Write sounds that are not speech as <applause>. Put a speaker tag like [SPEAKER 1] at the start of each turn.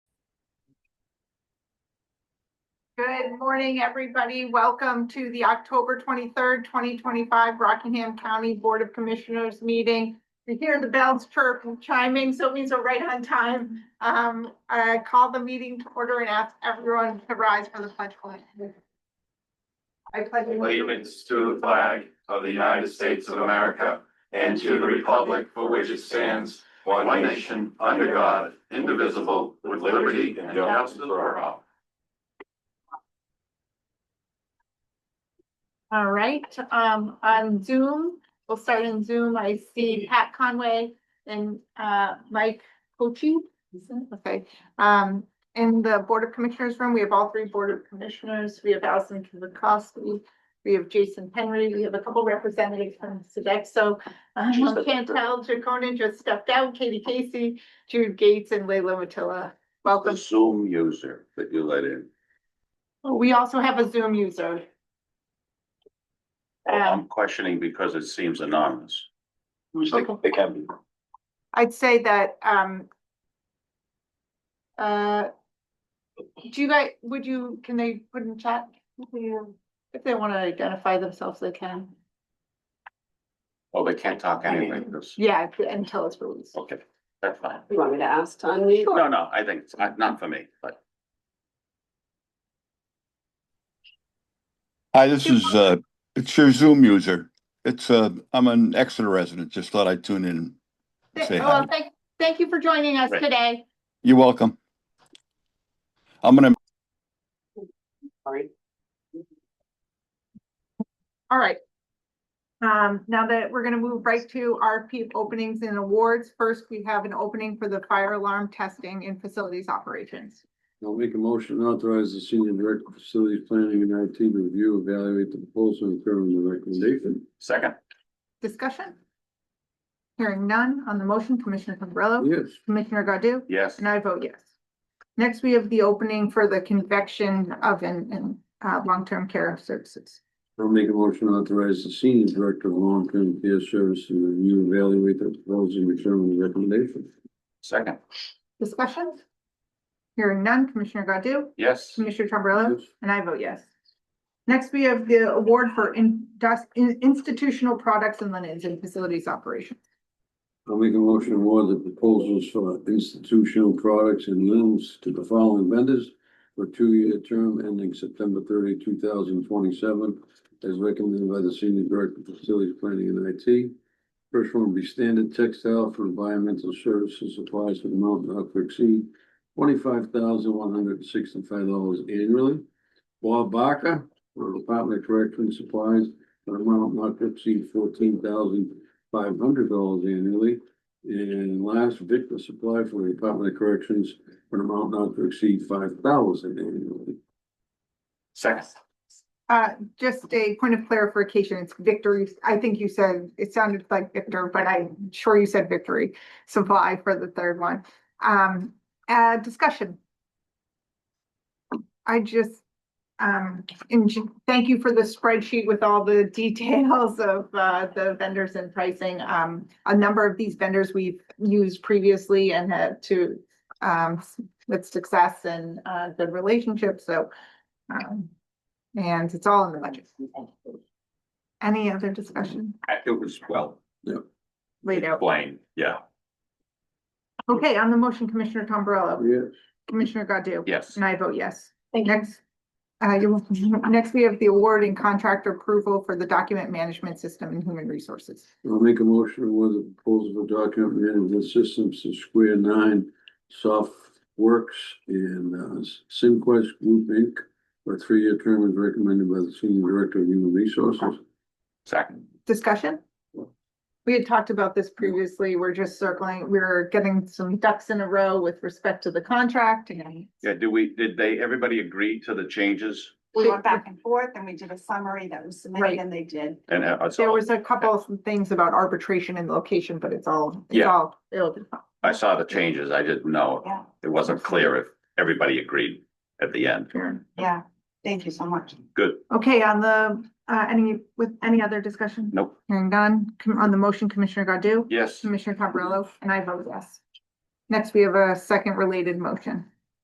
[SPEAKER 1] Good morning, everybody. Welcome to the October twenty-third, twenty twenty-five Rockingham County Board of Commissioners meeting. You hear the bells chirp and chiming, so it means we're right on time. Um, I call the meeting to order and ask everyone to rise for the pledge. pledge. I pledge
[SPEAKER 2] allegiance to the flag of the United States of America and to the republic for which it stands, one nation, under God, indivisible, with liberty and justice for all.
[SPEAKER 1] All right, um, on Zoom, we'll start in Zoom. I see Pat Conway and, uh, Mike Cochi. Okay, um, in the Board of Commissioners room, we have all three Board of Commissioners. We have Allison Kuzakowski. We have Jason Henry. We have a couple representatives from Sodexo. Um, Chantel Jaconin just stepped out, Katie Casey, Jude Gates and Leila Matilla. Welcome.
[SPEAKER 3] the Zoom user that you let in.
[SPEAKER 1] We also have a Zoom user. Um,
[SPEAKER 3] I'm questioning because it seems anonymous.
[SPEAKER 1] Okay.
[SPEAKER 3] It can be.
[SPEAKER 1] I'd say that, um. Uh. Do you guys, would you, can they put in chat? who they are? If they wanna identify themselves, they can.
[SPEAKER 3] Oh, they can't talk anyway, 'cause-
[SPEAKER 1] Yeah, and tell us released.
[SPEAKER 3] okay, that's fine.
[SPEAKER 4] You want me to ask Tanya?
[SPEAKER 3] No, no, I think it's not, not for me, but
[SPEAKER 5] Hi, this is, uh, it's your Zoom user. It's, uh, I'm an Exeter resident, just thought I'd tune in. and Say
[SPEAKER 1] Well,
[SPEAKER 5] hi.
[SPEAKER 1] thank, thank you for joining us
[SPEAKER 3] Right.
[SPEAKER 1] today.
[SPEAKER 5] You're welcome. I'm gonna
[SPEAKER 4] Sorry.
[SPEAKER 1] All right. Um, now that we're gonna move right to RFP openings and awards. First, we have an opening for the fire alarm testing and facilities operations.
[SPEAKER 6] I'll make a motion to authorize the senior director of facilities planning and IT to review, evaluate the proposal and determine the recommendation.
[SPEAKER 3] second,
[SPEAKER 1] Discussion? Hearing none on the motion, Commissioner Pombrilla,
[SPEAKER 6] Yes,
[SPEAKER 1] Commissioner Godu?
[SPEAKER 3] yes,
[SPEAKER 1] And I vote yes. Next, we have the opening for the convection oven and uh long-term care services.
[SPEAKER 6] I'll make a motion to authorize the senior director of long-term care services to review, evaluate the proposal and determine the recommendation.
[SPEAKER 3] second,
[SPEAKER 1] Discussion? Hearing none, Commissioner Godu?
[SPEAKER 3] yes,
[SPEAKER 1] Commissioner Tombrilla?
[SPEAKER 6] Yes.
[SPEAKER 1] And I vote yes. Next, we have the award for indus- in- institutional products and linens and facilities operation.
[SPEAKER 6] I'll make a motion to award the proposals for institutional products and limbs to the following vendors for a two-year term ending September 30, 2027, as recommended by the senior director of facilities planning and IT. First one will be standard textile for environmental services supplies for the mountain not to exceed twenty-five thousand one hundred and sixty-five dollars annually. Bob Barker for Department of Correction Supplies for the amount not to exceed fourteen thousand five hundred dollars annually. And last, Victor Supply for the Department of Corrections for an amount not to exceed five thousand annually.
[SPEAKER 3] second,
[SPEAKER 1] Uh, just a point of clarification, it's victory, I think you said, it sounded like Victor, but I'm sure you said victory supply for the third one. Um, uh, discussion. I just, um, and ju- thank you for the spreadsheet with all the <laughs> details of, uh, the vendors and pricing. Um, a number of these vendors we've used previously and had to, um, with success and, uh, good relationships, so, um, and it's all in the budget. Any other discussion
[SPEAKER 3] it was well
[SPEAKER 1] laid out?
[SPEAKER 3] explained, yeah,
[SPEAKER 1] Okay, on the motion, Commissioner Tom Barello,
[SPEAKER 6] Yes,
[SPEAKER 1] Commissioner Godu?
[SPEAKER 3] yes,
[SPEAKER 1] And I vote yes.
[SPEAKER 4] Thank you.
[SPEAKER 1] Next, uh, you're welcome. next we have the award and contract approval for the document management system and human resources.
[SPEAKER 6] I'll make a motion to award the proposal for document management systems to Square Nine Softworks and uh, SimQuest Group Inc. For a three-year term as recommended by the Senior Director of Human Resources.
[SPEAKER 3] second,
[SPEAKER 1] Discussion? We had talked about this previously. We're just circling, we're getting some ducks in a row with respect to the contract and
[SPEAKER 3] yeah, do we, did they, everybody agree to the changes?
[SPEAKER 4] We went back and forth and we did a summary that was
[SPEAKER 1] Right.
[SPEAKER 4] submitted and they did.
[SPEAKER 3] And uh, it's
[SPEAKER 1] there
[SPEAKER 3] all-
[SPEAKER 1] was a couple of things about arbitration and location, but it's all, it's
[SPEAKER 3] Yeah.
[SPEAKER 1] all, it'll be fine.
[SPEAKER 3] I saw the changes, I didn't know,
[SPEAKER 4] Yeah,
[SPEAKER 3] it wasn't clear if everybody agreed at the end,
[SPEAKER 4] yeah. Thank you so much.
[SPEAKER 3] good,
[SPEAKER 1] Okay, on the, uh, any, with any other discussion?
[SPEAKER 3] Nope.
[SPEAKER 1] Hearing none, Com- on the motion, Commissioner Godu?
[SPEAKER 3] yes,
[SPEAKER 1] Commissioner Cabrillo, and I vote yes. Next, we have a second related motion.